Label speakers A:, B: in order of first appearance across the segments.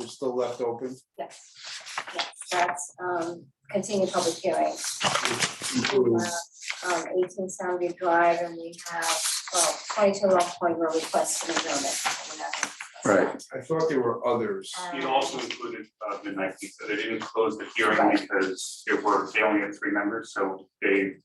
A: is still left open.
B: Yes, yes, that's um continued public hearing.
A: including-
B: Um eighteen Soundview Drive and we have, well, twenty-two Rock Point where requests an adjournment. We're not gonna discuss that.
C: Right.
A: I thought there were others.
B: Um,
D: It also included uh, midnight pizza. They didn't close the hearing because there were, they only had three members, so they,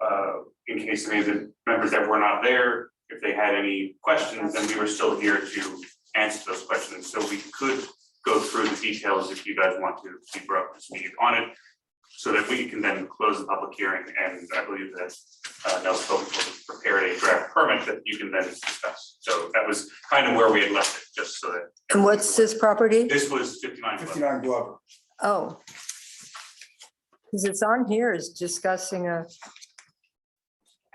D: uh, in case any of the members that were not there, if they had any questions, then we were still here to answer those questions. So we could go through the details if you guys want to keep up to speed on it, so that we can then close the public hearing. And I believe that uh, Nels Phillips will prepare a draft permit that you can then discuss. So that was kind of where we had left it, just so that
E: And what's this property?
D: this was fifty-nine. Club.
A: Fifty-nine Glover.
E: Oh. Because it's on here is discussing a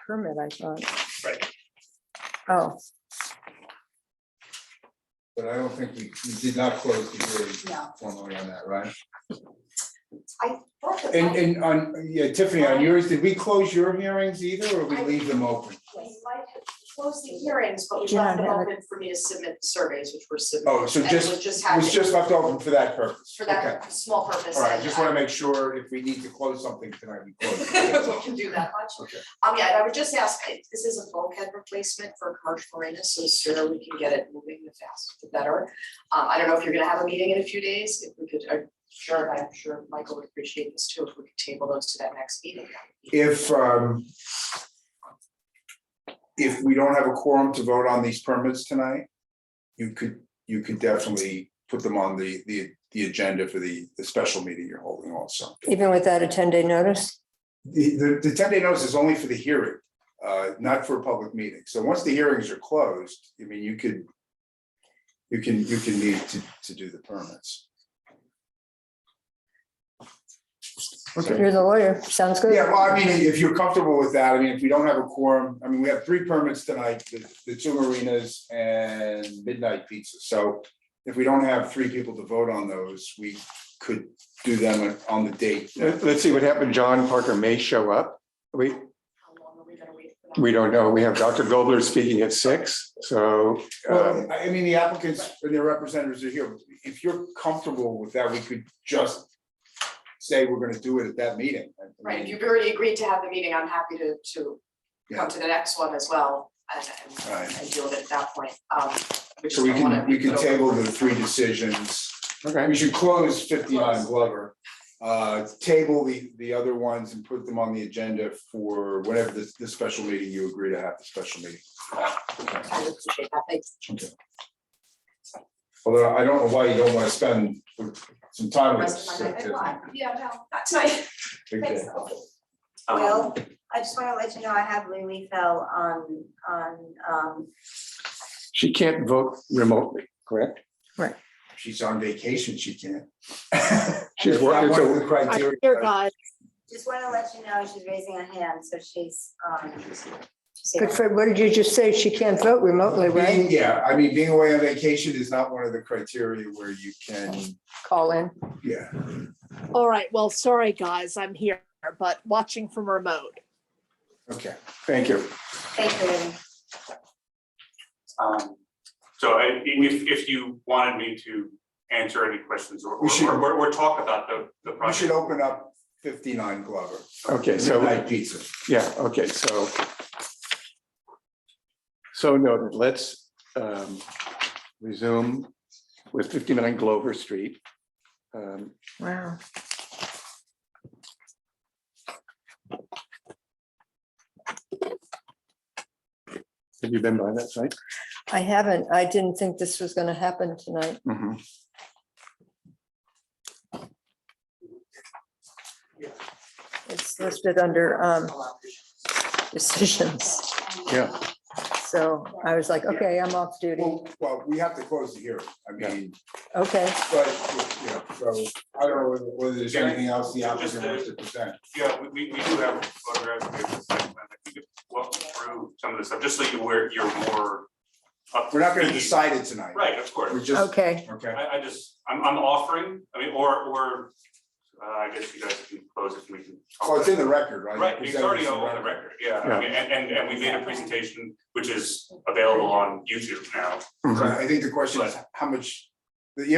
E: permit, I thought.
D: Right.
E: Oh,
A: But I don't think we, we did not close the hearing
B: No.
A: formally on that, right?
B: Both of
A: And,
B: them.
A: and on, yeah, Tiffany, on yours, did we close your hearings either, or we leave them open?
F: We might have closed the hearings, but we
E: Yeah,
F: left them
E: that-
F: open for me to submit the surveys, which were submitted.
A: Oh, so
F: And
A: just,
F: was just
A: it was
F: having,
A: just left open for that purpose?
F: for
A: Okay.
F: that small purpose.
A: All right, I
F: and
A: just wanna make sure if we need to close something tonight, we close it. That's
F: We
A: all.
F: can do that much.
A: Okay.
F: Um, yeah, and I would just ask, it- this is a bulkhead replacement for commercial marina, so the sooner we can get it moving, the faster, the better. Um, I don't know if you're gonna have a meeting in a few days, if we could, uh, sure, I'm sure Michael would appreciate this too, if we could table those to that next meeting.
A: If, um, if we don't have a quorum to vote on these permits tonight, you could, you could definitely put them on the, the, the agenda for the, the special meeting you're holding also.
E: even without a 10-day notice?
A: The, the, the ten day notice is only for the hearing, uh, not for a public meeting. So once the hearings are closed, I mean, you could. You can, you can need to, to do the permits. Okay.
E: You're the lawyer. Sounds good.
A: Yeah, well, I mean, if you're comfortable with that, I mean, if we don't have a quorum, I mean, we have three permits tonight, the, the two marinas and midnight pizza. So. If we don't have three people to vote on those, we could do them on the date. uh,
C: Let- Let's see what happened. John Parker may show up. We,
F: How long are we gonna wait for that?
C: we don't know. We have Dr. Gobler speaking at six, so. um,
A: Well, I I mean, the applicants and their representatives are here. If you're comfortable with that, we could just say we're gonna do it at that meeting. I mean,
F: Right, if you've already agreed to have the meeting, I'm happy to, to
A: Yeah.
F: come to the next one as well and, and,
A: Right.
F: and deal with it at that point. Um, we
A: So
F: just
A: we
F: don't wanna
A: can, we
F: leave
A: can
F: it open
A: table
F: for-
A: the three decisions.
C: Okay,
A: We should close fifty-nine Glover. Uh, table the, the other ones and put them on the agenda for whatever this, this special meeting you agree to have, the special meeting.
F: I would appreciate that, thanks.
A: Although I don't know why you don't wanna spend some time with
F: Rest
A: us.
F: of my life.
A: Tiffany.
F: Yeah, no, not tonight.
A: Okay.
D: Um,
B: Well, I just wanna let you know I have Lily fell on on um
C: she can't vote remotely, correct?
A: She's on vacation, she can't.
C: She's
A: That's not
C: working,
A: one of
C: so-
A: the criteria.
G: Dear God,
B: just wanna let you know she's raising her hand, so she's um she's here.
E: But Fred, what did you just say? She can't vote remotely, right?
A: Being- Yeah, I mean, being away on vacation is not one of the criteria where you can,
E: Call in.
A: yeah.
G: all right, well, sorry, guys, I'm here, but watching from remote.
A: Okay,
C: Thank you.
B: Thank you, Lily.
D: um, So I- if, if you wanted me to answer any questions or,
A: We should-
D: or, or- or talk about the, the
A: we
D: project.
A: should open up fifty-nine Glover,
C: Okay, so,
A: midnight pizza.
C: yeah, okay, so. So noted, let's um, resume with 59 Glover Street. Um,
E: Wow.
C: Have you been by that site?
E: I haven't. I didn't think this was going to happen tonight.
C: Mhm.
E: It's listed under um, decisions.
C: Yeah.
E: So I was like, okay, I'm off duty.
A: Well, well, we have to close the hearing, I mean,
E: Okay.
A: but, you know, so I don't know whether- whether there's anything else the applicant wants to present.
D: Yeah, we, we we do have photographs, we have the site plan, I think, walk through some of this stuff, just so you were, you're more. up to
A: We're not gonna
D: speed.
A: decide it tonight.
D: Right, of course.
A: We're just,
E: Okay.
A: okay,
D: I, I just, I'm, I'm offering, I mean, or, or, uh, I guess you guys can close it, we can. talk
A: well, it's in the
D: about it.
A: record, right?
D: Right, it's already
A: Presented
D: on
A: as
D: the
A: a
D: record, yeah,
C: Yeah.
D: I mean, and, and, and we made a presentation, which is available on YouTube now.
C: Mhm.
A: So I think the question is, how much, the